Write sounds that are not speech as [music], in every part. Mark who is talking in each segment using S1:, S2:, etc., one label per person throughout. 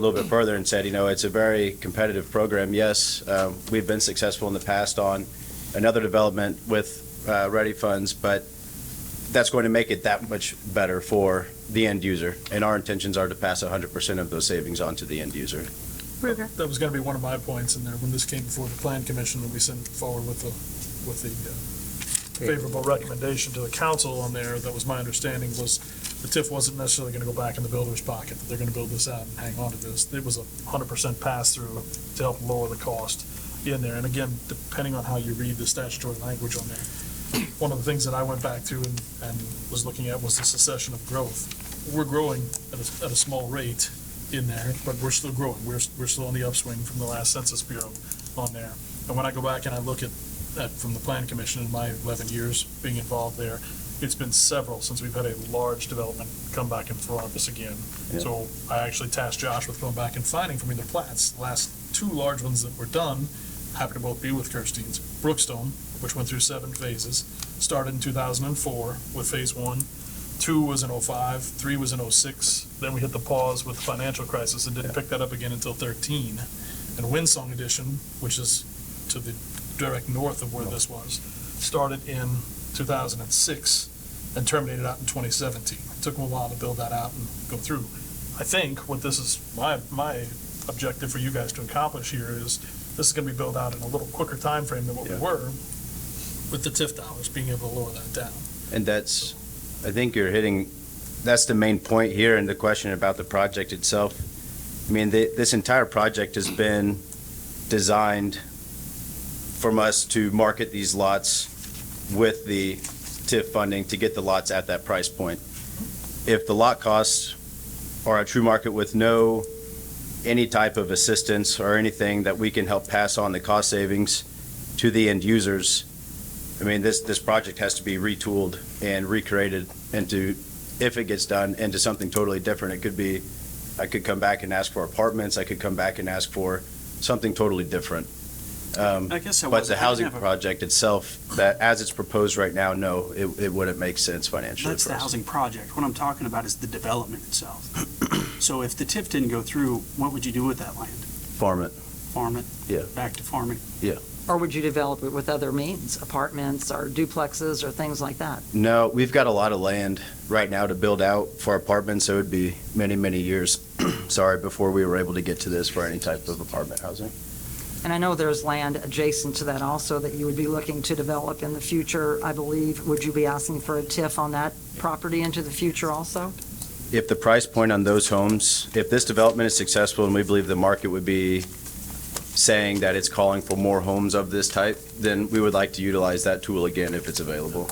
S1: a little bit further and said, you know, it's a very competitive program. Yes, um, we've been successful in the past on another development with uh, ready funds, but that's going to make it that much better for the end user. And our intentions are to pass 100% of those savings on to the end user.
S2: Ruger.
S3: That was gonna be one of my points in there, when this came before the plan commission, that we sent forward with the, with the uh, favorable recommendation to the council on there, that was my understanding, was the TIF wasn't necessarily gonna go back in the builder's pocket, that they're gonna build this out and hang on to this. It was a hundred percent pass-through to help lower the cost in there, and again, depending on how you read the statutory language on there. One of the things that I went back to and, and was looking at was the succession of growth. We're growing at a, at a small rate, in there, but we're still growing. We're, we're still on the upswing from the last Census Bureau on there. And when I go back and I look at, at, from the Plan Commission in my 11 years being involved there, it's been several since we've had a large development come back in front of us again.
S1: Yeah.
S3: So I actually tasked Josh with going back and finding for me the plats. The Last two large ones that were done happen to both be with Kirstein's. Brookstone, which went through seven phases, started in 2004 with phase one. Two was in '05, three was in '06. Then we hit the pause with the financial crisis and didn't pick that up again until thirteen. And Windsong Edition, which is to the direct north of where this was, started in two thousand and six and terminated out in twenty seventeen. It Took them a while to build that out and go through. I think what this is, my, my objective for you guys to accomplish here is this is gonna be built out in a little quicker time frame than what we
S1: Yeah.
S3: were with the TIF dollars, being able to lower that down.
S1: And that's, I think you're hitting, that's the main point here in the question about the project itself. I mean, thi- this entire project has been designed from us to market these lots with the TIF funding to get the lots at that price point. If the lot costs are at true market with no, any type of assistance or anything that we can help pass on the cost savings to the end users, I mean, this, this project has to be retooled and recreated into, if it gets done, into something totally different. It could be, I could come back and ask for apartments, I could come back and ask for something totally different. Um,
S4: I guess I
S1: But the
S4: wasn't- I
S1: housing
S4: never-
S1: project itself, that, as it's proposed right now, no, it, it wouldn't make sense financially
S4: That's
S1: for
S4: the
S1: us.
S4: housing project. What I'm talking about is the development
S1: [clears throat]
S4: itself. So if the TIF didn't go through, what would you do with that land?
S1: Farm it,
S4: Farm it?
S1: Yeah.
S4: Back to farming?
S2: Or would you develop it with other means, apartments or duplexes or things like that?
S1: no, we've got a lot of land right now to build out for apartments, so it'd be many, many years, [clears throat] sorry, before we were able to get to this for any type of apartment housing.
S2: And I know there's land adjacent to that also that you would be looking to develop in the future, I believe. Would you be asking for a TIF on that property into the future also?
S1: if the price point on those homes, if this development is successful and we believe the market would be saying that it's calling for more homes of this type, then we would like to utilize that tool again if it's available.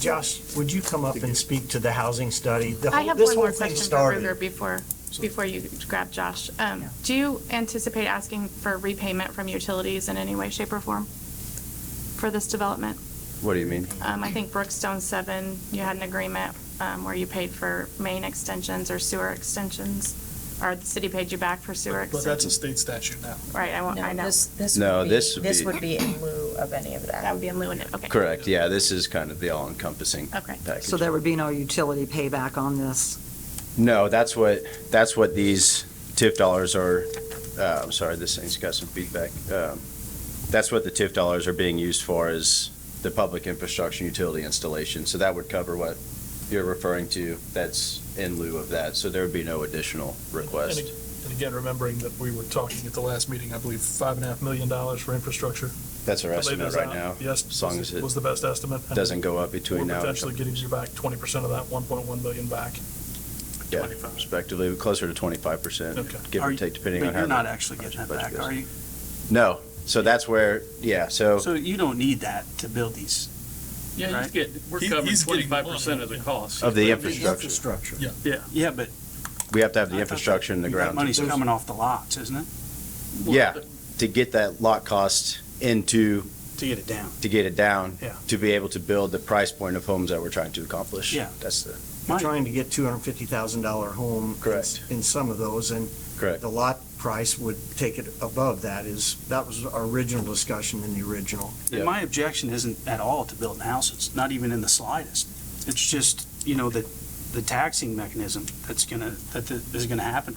S5: Josh, would you come up and speak to the housing study? The
S6: I
S5: whole-
S6: have
S5: this
S6: one
S5: whole
S6: more
S5: thing
S6: question for
S5: started-
S6: Ruger before, before you grab Josh. Um,
S2: Yeah.
S6: Do you anticipate asking for repayment from utilities in any way, shape, or form for this development?
S1: What do you mean?
S6: Um, I think Brookstone Seven, you had an agreement um, where you paid for main extensions or sewer extensions, or the city paid you back for sewer
S3: But that's a
S6: extensions.
S3: state statute now.
S6: Right, I want, I
S7: No,
S6: know.
S7: this, this
S1: No,
S7: would be,
S1: this would
S7: this
S1: be-
S7: would be in lieu of any of
S6: That
S7: that.
S6: would be in lieu of it, okay.
S1: Correct, yeah, this is kind of the all-encompassing
S6: Okay.
S1: package.
S2: So there would be no utility payback on this?
S1: No, that's what, that's what these TIF dollars are, uh, I'm sorry, this thing's got some feedback. Um, That's what the TIF dollars are being used for is the public infrastructure and utility installation. So that would cover what you're referring to that's in lieu of that. So there would be no additional
S3: And
S1: request.
S3: ag- And again, remembering that we were talking at the last meeting, I believe, five and a half million dollars for infrastructure.
S1: That's our
S3: to lay
S1: estimate
S3: those
S1: right
S3: out.
S1: now.
S3: Yes.
S1: As long
S3: was-
S1: as it
S3: Was the best estimate. and
S1: doesn't go up between now
S3: We're
S1: and-
S3: potentially getting you back twenty percent of that, one point one million back.
S1: Yeah,
S3: 25.
S1: respectively, closer to twenty-five percent,
S3: Okay.
S1: give
S4: Are
S1: or
S4: you-
S1: take, depending on
S4: But
S1: how.
S4: you're not
S1: the
S4: actually getting that
S1: budget
S4: back,
S1: goes. Oh.
S4: are you?
S1: No, so that's where, yeah,
S4: So you don't need that to build these.
S8: Yeah,
S4: Right?
S8: he's getting, we're
S3: He-
S8: covering
S3: he's getting
S8: twenty-five percent of the cost.
S1: Of the infrastructure.
S4: Yeah, but.
S1: We have to have
S4: I
S1: the
S4: thought
S1: infrastructure in the
S4: that
S1: ground.
S4: Money's coming off the lots, isn't it?
S1: Yeah, to get that lot cost into,
S4: To get it down.
S1: to get it down.
S4: Yeah.
S1: To be able to build the price point of homes that we're trying to accomplish.
S4: Yeah.
S1: That's the,
S5: We're
S4: Mike,
S5: trying to get $250,000 home. in-
S1: Correct.
S5: In some of those, and
S1: correct.
S5: the lot price would take it above that is, that was our original discussion in the original.
S4: And
S1: Yeah.
S4: my objection isn't at all to building houses, not even in the slightest. It's just, you know, that the taxing mechanism that's gonna, that th- is gonna happen